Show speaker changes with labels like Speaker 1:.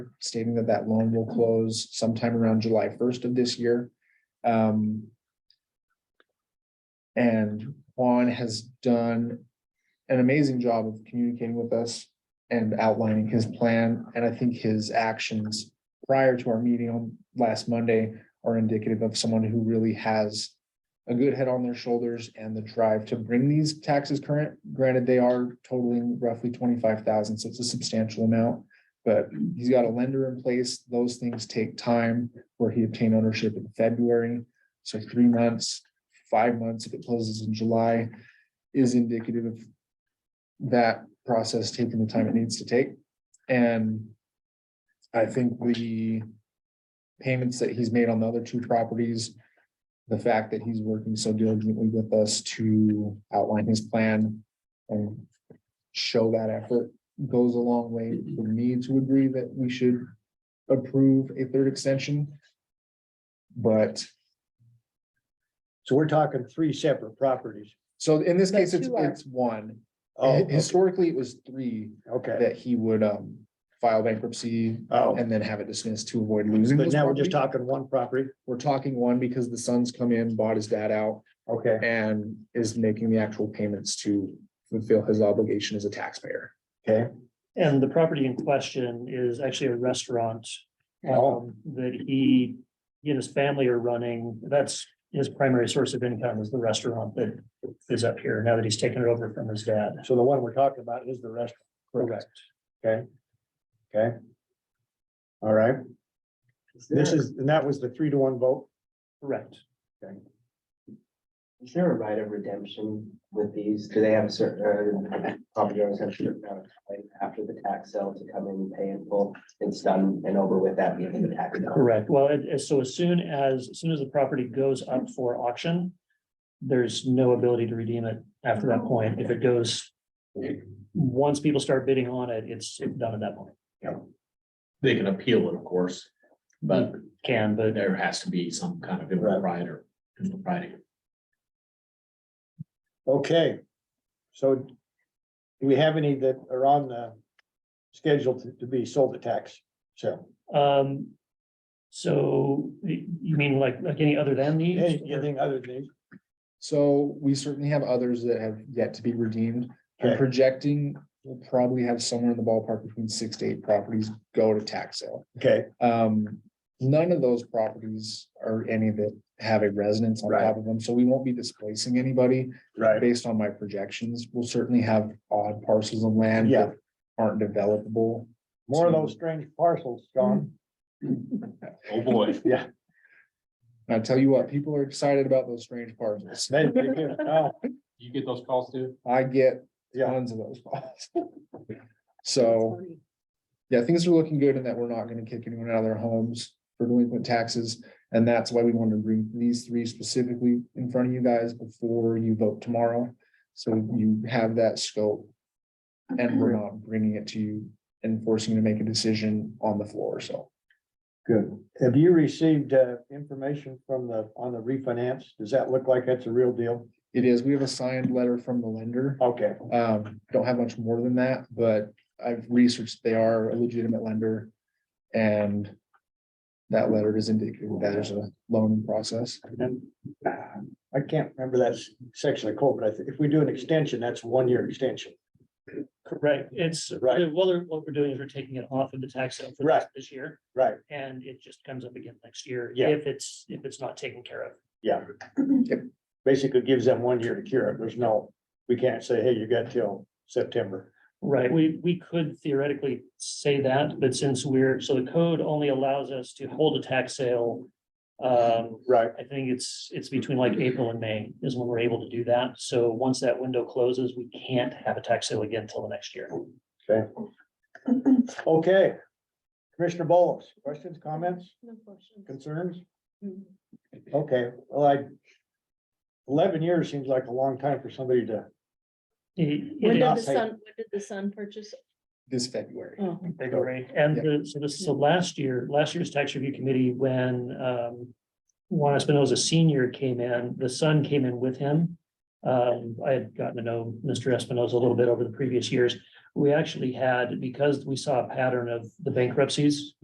Speaker 1: stating that that loan will close sometime around July first of this year. Um, And Juan has done an amazing job of communicating with us and outlining his plan. And I think his actions prior to our meeting on last Monday are indicative of someone who really has a good head on their shoulders and the drive to bring these taxes current. Granted, they are totaling roughly twenty-five thousand, so it's a substantial amount. But he's got a lender in place. Those things take time where he obtained ownership in February. So three months, five months, if it closes in July, is indicative of that process taking the time it needs to take. And I think the payments that he's made on the other two properties, the fact that he's working so diligently with us to outline his plan and show that effort goes a long way for me to agree that we should approve a third extension. But,
Speaker 2: So we're talking three separate properties.
Speaker 1: so in this case,
Speaker 3: But
Speaker 1: it's,
Speaker 3: two are-
Speaker 1: it's one.
Speaker 2: Oh,
Speaker 1: Historically, it was three
Speaker 2: okay.
Speaker 1: that he would, um, file bankruptcy
Speaker 2: Oh,
Speaker 1: and then have it dismissed to avoid losing.
Speaker 2: but
Speaker 1: this
Speaker 2: now we're just
Speaker 1: property.
Speaker 2: talking one property.
Speaker 1: We're talking one because the son's come in, bought his dad out
Speaker 2: Okay.
Speaker 1: and is making the actual payments to fulfill his obligation as a taxpayer.
Speaker 4: And the property in question is actually a restaurant.
Speaker 2: Oh.
Speaker 4: um, That he, he and his family are running. That's his primary source of income is the restaurant that is up here now that he's taken it over from his dad.
Speaker 2: So the one we're talking about is the restaurant.
Speaker 4: Correct.
Speaker 2: Okay. Okay. All right. This is, and that was the three to one vote.
Speaker 4: Correct.
Speaker 5: Is there a right of redemption with these? Do they have a certain, uh, property owners have a certain amount of time after the tax sale to come in and pay in full? It's done and over with that being the tax. sale.
Speaker 4: Correct. Well, it- it- so as soon as, as soon as the property goes up for auction, there's no ability to redeem it after that point. If it goes, once people start bidding on it, it's done at that point.
Speaker 6: They can appeal it, of course, but
Speaker 4: Can, but
Speaker 6: there has to be some kind of
Speaker 2: Right.
Speaker 6: impropriety. impropriety.
Speaker 2: Okay. So do we have any that are on the schedule to- to be sold at tax? So
Speaker 4: Um, so y- you mean like, like any other than these?
Speaker 2: anything other than these?
Speaker 1: So we certainly have others that have yet to be redeemed. I'm
Speaker 2: Okay.
Speaker 1: projecting we'll probably have somewhere in the ballpark between six to eight properties go to tax sale.
Speaker 2: Okay,
Speaker 1: Um, none of those properties are any that have a residence on
Speaker 2: Right.
Speaker 1: top of them, so we won't be displacing anybody.
Speaker 2: right.
Speaker 1: based on my projections, we'll certainly have odd parcels of land
Speaker 2: Yeah.
Speaker 1: that aren't developable.
Speaker 2: More of those strange parcels, John.
Speaker 6: Oh, boy.
Speaker 1: And I tell you what, people are excited about those strange parcels.
Speaker 2: They- they do. Oh,
Speaker 6: You get those calls too?
Speaker 1: I get
Speaker 2: Yeah,
Speaker 1: tons of those calls. So, yeah, things are looking good in that we're not gonna kick anyone out of their homes for delinquent taxes. And that's why we wanted to bring these three specifically in front of you guys before you vote tomorrow. So you have that scope. And we're not bringing it to you and forcing you to make a decision on the floor, so.
Speaker 2: good. Have you received uh information from the, on the refinance? Does that look like that's a real deal?
Speaker 1: It is, we have a signed letter from the lender.
Speaker 2: Okay,
Speaker 1: Um, don't have much more than that, but I've researched, they are a legitimate lender. And that letter is indicative that there's a loan process.
Speaker 2: uh, I can't remember that section of code, but I think if we do an extension, that's one year extension.
Speaker 4: Correct. It's,
Speaker 2: Right.
Speaker 4: well, they're- what we're doing is we're taking it off of the tax sale for
Speaker 2: Right.
Speaker 4: this- this year,
Speaker 2: Right,
Speaker 4: and it just comes up again next year.
Speaker 2: Yeah.
Speaker 4: If it's, if it's not taken care of.
Speaker 2: yeah. Basically gives them one year to cure it. There's no, we can't say, hey, you got till September.
Speaker 4: Right, we, we could theoretically say that, but since we're, so the code only allows us to hold a tax sale. Um,
Speaker 2: Right,
Speaker 4: I think it's, it's between like April and May is when we're able to do that. So once that window closes, we can't have a tax sale again until the next year.
Speaker 2: okay. Commissioner Bowles, questions, comments,
Speaker 3: No questions.
Speaker 2: concerns?
Speaker 3: Mm.
Speaker 2: Okay, well, I. Eleven years seems like a long time for somebody to,
Speaker 4: It-
Speaker 3: When
Speaker 4: it
Speaker 3: did
Speaker 2: not
Speaker 3: the
Speaker 2: paid.
Speaker 3: son, when did the son purchase?
Speaker 1: This February,
Speaker 3: Oh,
Speaker 4: Big array. And the, so this, so last year, last year's tax review committee, when um. Juan Espinoza Senior came in, the son came in with him. Um, I had gotten to know Mr. Espinoza a little bit over the previous years. we actually had, because we saw a pattern of the bankruptcies